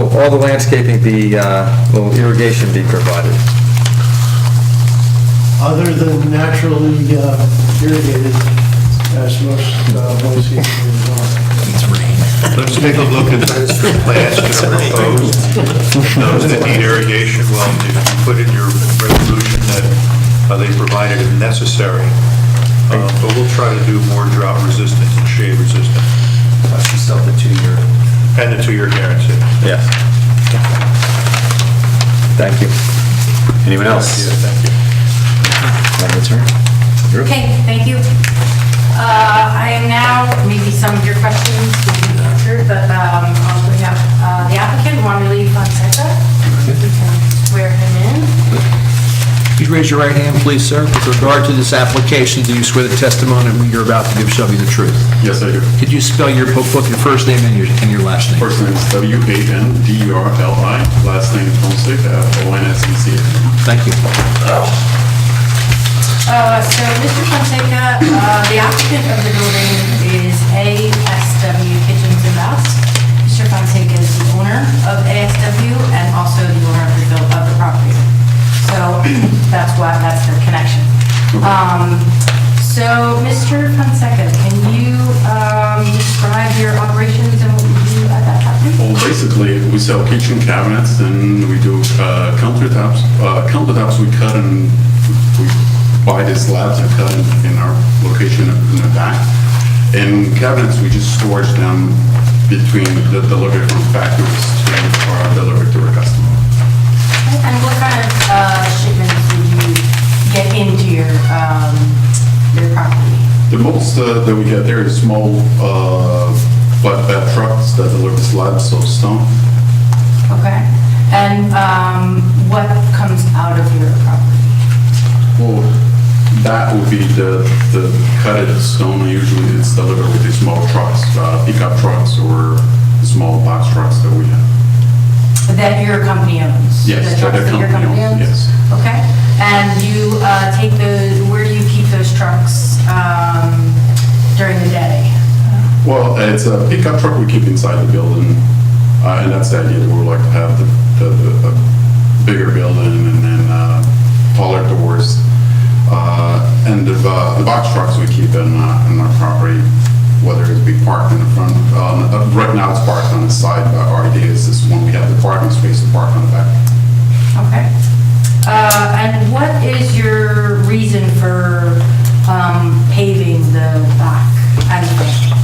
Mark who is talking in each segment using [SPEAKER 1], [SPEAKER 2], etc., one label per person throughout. [SPEAKER 1] all the landscaping be, uh, will irrigation be provided?
[SPEAKER 2] Other than naturally uh, irrigated, as most uh, Boise areas are.
[SPEAKER 3] Let's take a look at the plans that are proposed. Those that need irrigation, well, if you put in your resolution that uh, they provided if necessary, Uh, but we'll try to do more drought resistance and shade resistance,
[SPEAKER 4] That's just up to two-year.
[SPEAKER 3] and a two-year guarantee.
[SPEAKER 1] Yes. Thank you.
[SPEAKER 5] Anyone
[SPEAKER 3] Yeah,
[SPEAKER 5] else?
[SPEAKER 3] thank you.
[SPEAKER 5] Want to turn?
[SPEAKER 6] Okay, thank you. Uh, I am now, maybe some of your questions will be answered, but um, I'll bring up uh, the applicant, Juan Relief Fonseca. You can swear him in.
[SPEAKER 7] Please raise your right hand, please, sir. With regard to this application, do you swear the testimony you're about to give shall be the truth?
[SPEAKER 8] Yes, I do.
[SPEAKER 7] Could you spell your, both your first name and your, and your last name?
[SPEAKER 8] First name is E W-A-N-D-U-R-L-I, last name is uh, Fonseca, E F-O-N-S-E-C-A.
[SPEAKER 7] Thank you.
[SPEAKER 6] Uh, So Mr. Fonseca, uh, the applicant of the building is ASW Kitchens and Baths. Mr. Fonseca is the owner of ASW and also the owner of the buil- of the property. So that's why, that's their connection. Um, So Mr. Fonseca, can you um, describe your operations and what you do at that property?
[SPEAKER 8] Well, basically, we sell kitchen cabinets and we do uh, countertops. Uh, Countertops, we cut and we buy the slabs and cut in- in our location in the back. And cabinets, we just storage them between the delivery from factories to our delivery to our customer.
[SPEAKER 6] And what kind of uh, shipments do you get into your um, your property?
[SPEAKER 8] The most uh, that we get there is small uh, flatbed trucks that deliver slabs of stone.
[SPEAKER 6] Okay, and um, what comes out of your property?
[SPEAKER 8] Well, that would be the, the cut of stone, usually it's delivered with the small trucks, uh, pickup trucks or small box trucks that we have.
[SPEAKER 6] That your company owns?
[SPEAKER 8] Yes,
[SPEAKER 6] The
[SPEAKER 8] that
[SPEAKER 6] trucks
[SPEAKER 8] the
[SPEAKER 6] your
[SPEAKER 8] company owns, yes.
[SPEAKER 6] Okay, and you uh, take those, where do you keep those trucks um, during the day?
[SPEAKER 8] Well, it's a pickup truck we keep inside the building, uh, and that's the idea, we would like to have the, the, the a bigger building and then, uh, taller doors. Uh, and the, uh, the box trucks we keep in, uh, in our property, whether it be parked in the front, um, uh, right now it's parked on the side, but our idea is this when we have the parking space to park on the back.
[SPEAKER 6] Okay, Uh, and what is your reason for um, paving the back and the front?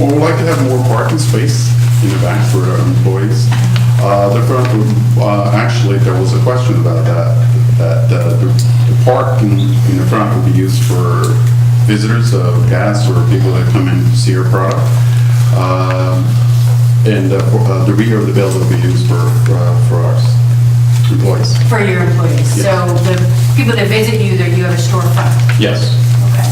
[SPEAKER 8] Well, we'd like to have more parking space in the back for our employees. Uh, The front, room, uh, actually, there was a question about that, that uh, the the park in in the front would be used for visitors of gas or people that come in to see our product. Um, And uh, for- uh, the rear of the building would be used for, uh, for our employees.
[SPEAKER 6] For your employees? So the people that visit you, that you have a storefront?
[SPEAKER 8] Yes.
[SPEAKER 6] Okay,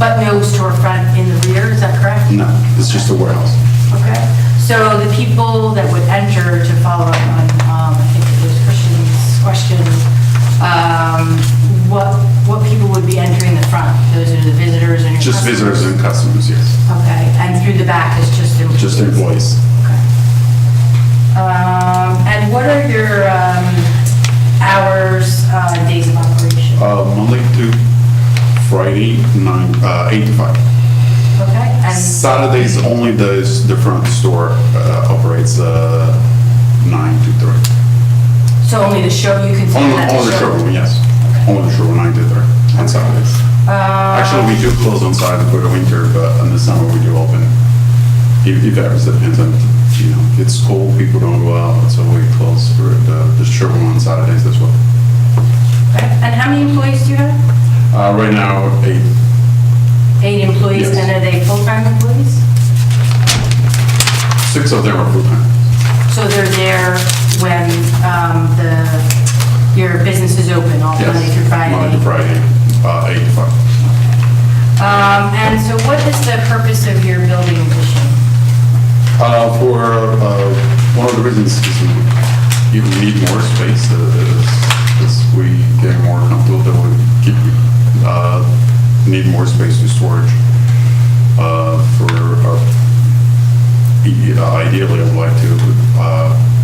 [SPEAKER 6] but no storefront in the rear, is that correct?
[SPEAKER 8] No, it's just a warehouse.
[SPEAKER 6] Okay, so the people that would enter to follow up on, um, I think it was Christian's question, um, what, what people would be entering the front? Those are the visitors and your
[SPEAKER 8] Just
[SPEAKER 6] customers?
[SPEAKER 8] visitors and customers, yes.
[SPEAKER 6] Okay, and through the back is just employees?
[SPEAKER 8] Just employees.
[SPEAKER 6] Okay. Um, and what are your, um, hours, uh, days of operation?
[SPEAKER 8] Uh, Monday to Friday, nine, uh, eight to five.
[SPEAKER 6] Okay, and,
[SPEAKER 8] Saturdays only the, the front store uh, operates uh, nine to three.
[SPEAKER 6] so only the show, you consider
[SPEAKER 8] Only,
[SPEAKER 6] that
[SPEAKER 8] only the showroom, yes. Only the showroom, nine to three on Saturdays. Actually, we do close on Saturday for the winter, but in the summer we do open. If, if ever, it depends on, you know, it's cold, people don't go out, so we close for the, the showroom on Saturdays as well.
[SPEAKER 6] Okay, And how many employees do you have?
[SPEAKER 8] Uh, right now, eight,
[SPEAKER 6] Eight employees,
[SPEAKER 8] Yes.
[SPEAKER 6] and are they full-time employees?
[SPEAKER 8] six of them are full-time.
[SPEAKER 6] So they're there when um, the, your business is open, all
[SPEAKER 8] Yes,
[SPEAKER 6] Monday through Friday?
[SPEAKER 8] Monday to Friday, uh, eight to five.
[SPEAKER 6] Um, And so what is the purpose of your building addition?
[SPEAKER 8] Uh, For, uh, one of the reasons is we you need more space, uh, is is we get more comfortable, that we keep, uh, need more space to storage e, uh, for, our- ideally, I'd like to uh,